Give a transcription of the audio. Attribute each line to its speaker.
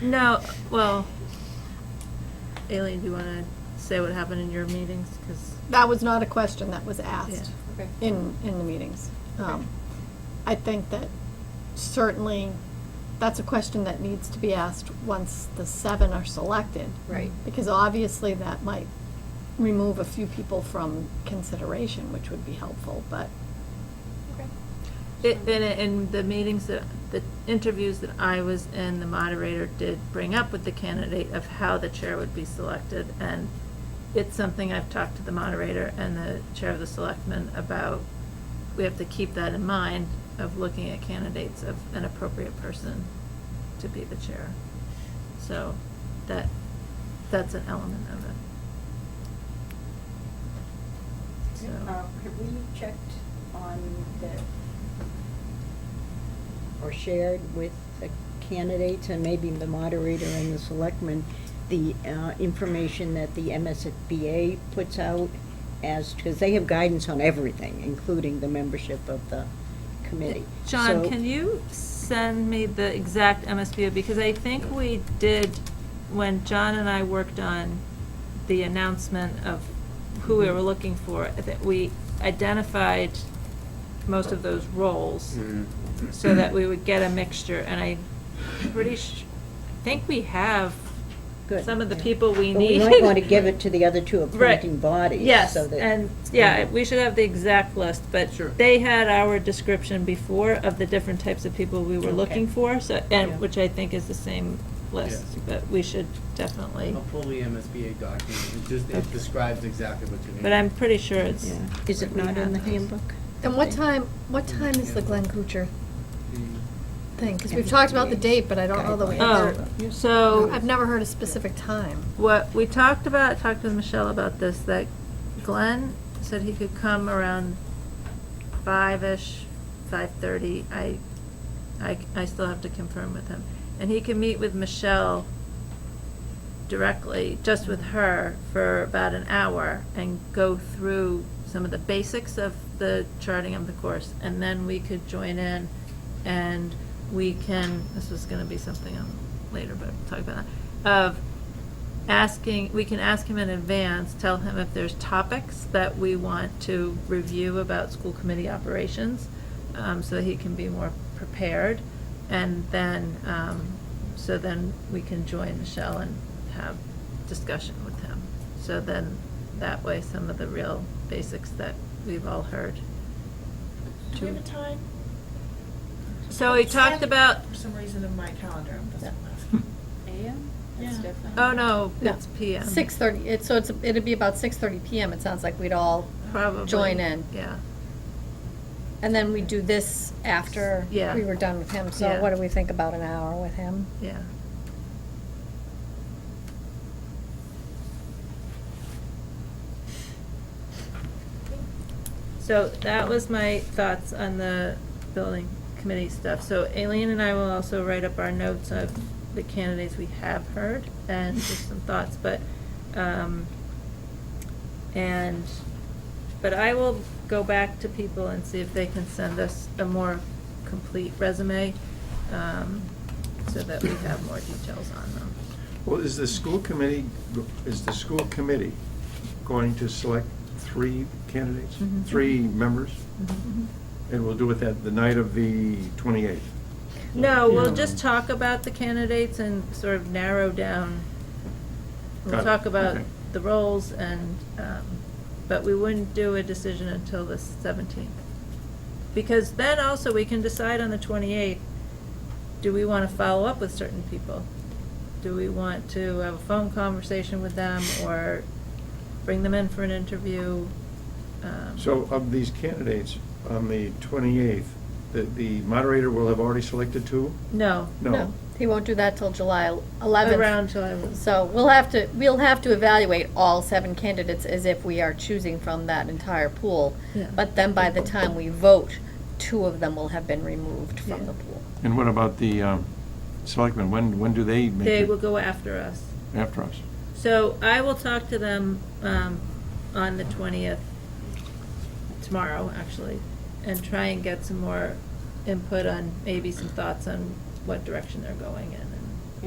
Speaker 1: No, well, Aileen, do you want to say what happened in your meetings? Because,
Speaker 2: That was not a question that was asked
Speaker 1: Yeah.
Speaker 3: Okay.
Speaker 2: in, in the meetings.
Speaker 3: Okay.
Speaker 2: Um, I think that certainly, that's a question that needs to be asked once the seven are selected.
Speaker 3: Right.
Speaker 2: Because obviously that might remove a few people from consideration, which would be helpful, but
Speaker 1: in, in the meetings that, the interviews that I was in, the moderator did bring up with the candidate of how the chair would be selected. And it's something I've talked to the moderator and the chair of the selectmen about. We have to keep that in mind of looking at candidates of an appropriate person to be the chair. So that, that's an element of it. So-
Speaker 4: Uh, Have we checked on the, or shared with the candidates and maybe the moderator and the selectmen, the uh, information that the MSBA puts out as, because they have guidance on everything, including the membership of the committee.
Speaker 1: John,
Speaker 4: So-
Speaker 1: can you send me the exact MSBA, because I think we did, when John and I worked on the announcement of who we were looking for, that we identified most of those roles,
Speaker 5: Mm-hmm.
Speaker 1: so that we would get a mixture, and I pretty sh, I think we have
Speaker 4: Good.
Speaker 1: some of the people we
Speaker 4: But we
Speaker 1: need.
Speaker 4: might want to give it to the other two
Speaker 1: Right.
Speaker 4: appointing bodies.
Speaker 1: Yes,
Speaker 4: so that-
Speaker 1: and, yeah, we should have the exact list, but
Speaker 5: Sure.
Speaker 1: they had our description before of the different types of people we were
Speaker 4: Okay.
Speaker 1: looking for, so,
Speaker 4: Yeah.
Speaker 1: and, which I think is the same list,
Speaker 5: Yes.
Speaker 1: but we should definitely,
Speaker 5: I'll pull the MSBA document, it just,
Speaker 1: Okay.
Speaker 5: it describes exactly what you need.
Speaker 1: but I'm pretty sure it's.
Speaker 4: Yeah. Is it
Speaker 1: we
Speaker 4: not
Speaker 1: had
Speaker 4: in the
Speaker 1: those.
Speaker 4: handbook?
Speaker 2: And what time, what time is the Glenn Kuchar
Speaker 5: The-
Speaker 2: thing? Because we've talked about the date, but I don't know that we
Speaker 1: Oh,
Speaker 2: ever,
Speaker 4: Oh.
Speaker 1: so.
Speaker 2: I've never heard a specific time.
Speaker 1: what we talked about, talked with Michelle about this, that Glenn said he could come around five-ish, five-thirty. I, I, I still have to confirm with him. And he can meet with Michelle directly, just with her, for about an hour and go through some of the basics of the charting of the course. And then we could join in and we can, this was gonna be something on later, but we'll talk about that, of asking, we can ask him in advance, tell him if there's topics that we want to review about school committee operations, um, so that he can be more prepared. And then, um, so then we can join Michelle and have discussion with him. So then, that way, some of the real basics that we've all heard.
Speaker 6: Do we have a time?
Speaker 1: So we talked about,
Speaker 6: For some reason in my calendar, I'm just.
Speaker 3: AM? That's
Speaker 6: Yeah.
Speaker 3: different.
Speaker 1: oh no,
Speaker 2: No.
Speaker 1: it's PM.
Speaker 2: Six thirty, it, so it's, it'd be about six thirty PM, it sounds like we'd all,
Speaker 1: Probably.
Speaker 2: join in.
Speaker 1: Yeah.
Speaker 2: and then we do this after
Speaker 1: Yeah.
Speaker 2: we were done with him, so
Speaker 1: Yeah.
Speaker 2: what do we think about an hour with him?
Speaker 1: Yeah. So that was my thoughts on the building committee stuff. So Aileen and I will also write up our notes of the candidates we have heard and just some thoughts, but, um, and, but I will go back to people and see if they can send us a more complete resume, um, so that we have more details on them.
Speaker 7: Well, is the school committee, is the school committee going to select three candidates?
Speaker 1: Mhm.
Speaker 7: Three members?
Speaker 1: Mm-hmm.
Speaker 7: And we'll do it that, the night of the 28th?
Speaker 1: No, we'll
Speaker 7: Yeah.
Speaker 1: just talk about the candidates and sort of narrow down. We'll
Speaker 7: Got it.
Speaker 1: talk about
Speaker 7: Okay.
Speaker 1: the roles and, um, but we wouldn't do a decision until the seventeenth. Because then also we can decide on the twenty-eighth, do we want to follow up with certain people? Do we want to have a phone conversation with them or bring them in for an interview? Um,
Speaker 7: So uh, of these candidates, on the 28th, the, the moderator will have already selected two?
Speaker 1: No.
Speaker 7: No.
Speaker 2: He won't do that till July eleventh.
Speaker 1: Around July 11th.
Speaker 2: So we'll have to, we'll have to evaluate all seven candidates as if we are choosing from that entire pool.
Speaker 1: Yeah.
Speaker 2: But then by the time we vote, two of them will have been removed
Speaker 1: Yeah.
Speaker 2: from the pool.
Speaker 7: And what about the um, selectmen? When, when do they make it?
Speaker 1: They will go after us.
Speaker 7: After us?
Speaker 1: So I will talk to them um, on the 20th, tomorrow, actually, and try and get some more input on, maybe some thoughts on what direction they're going in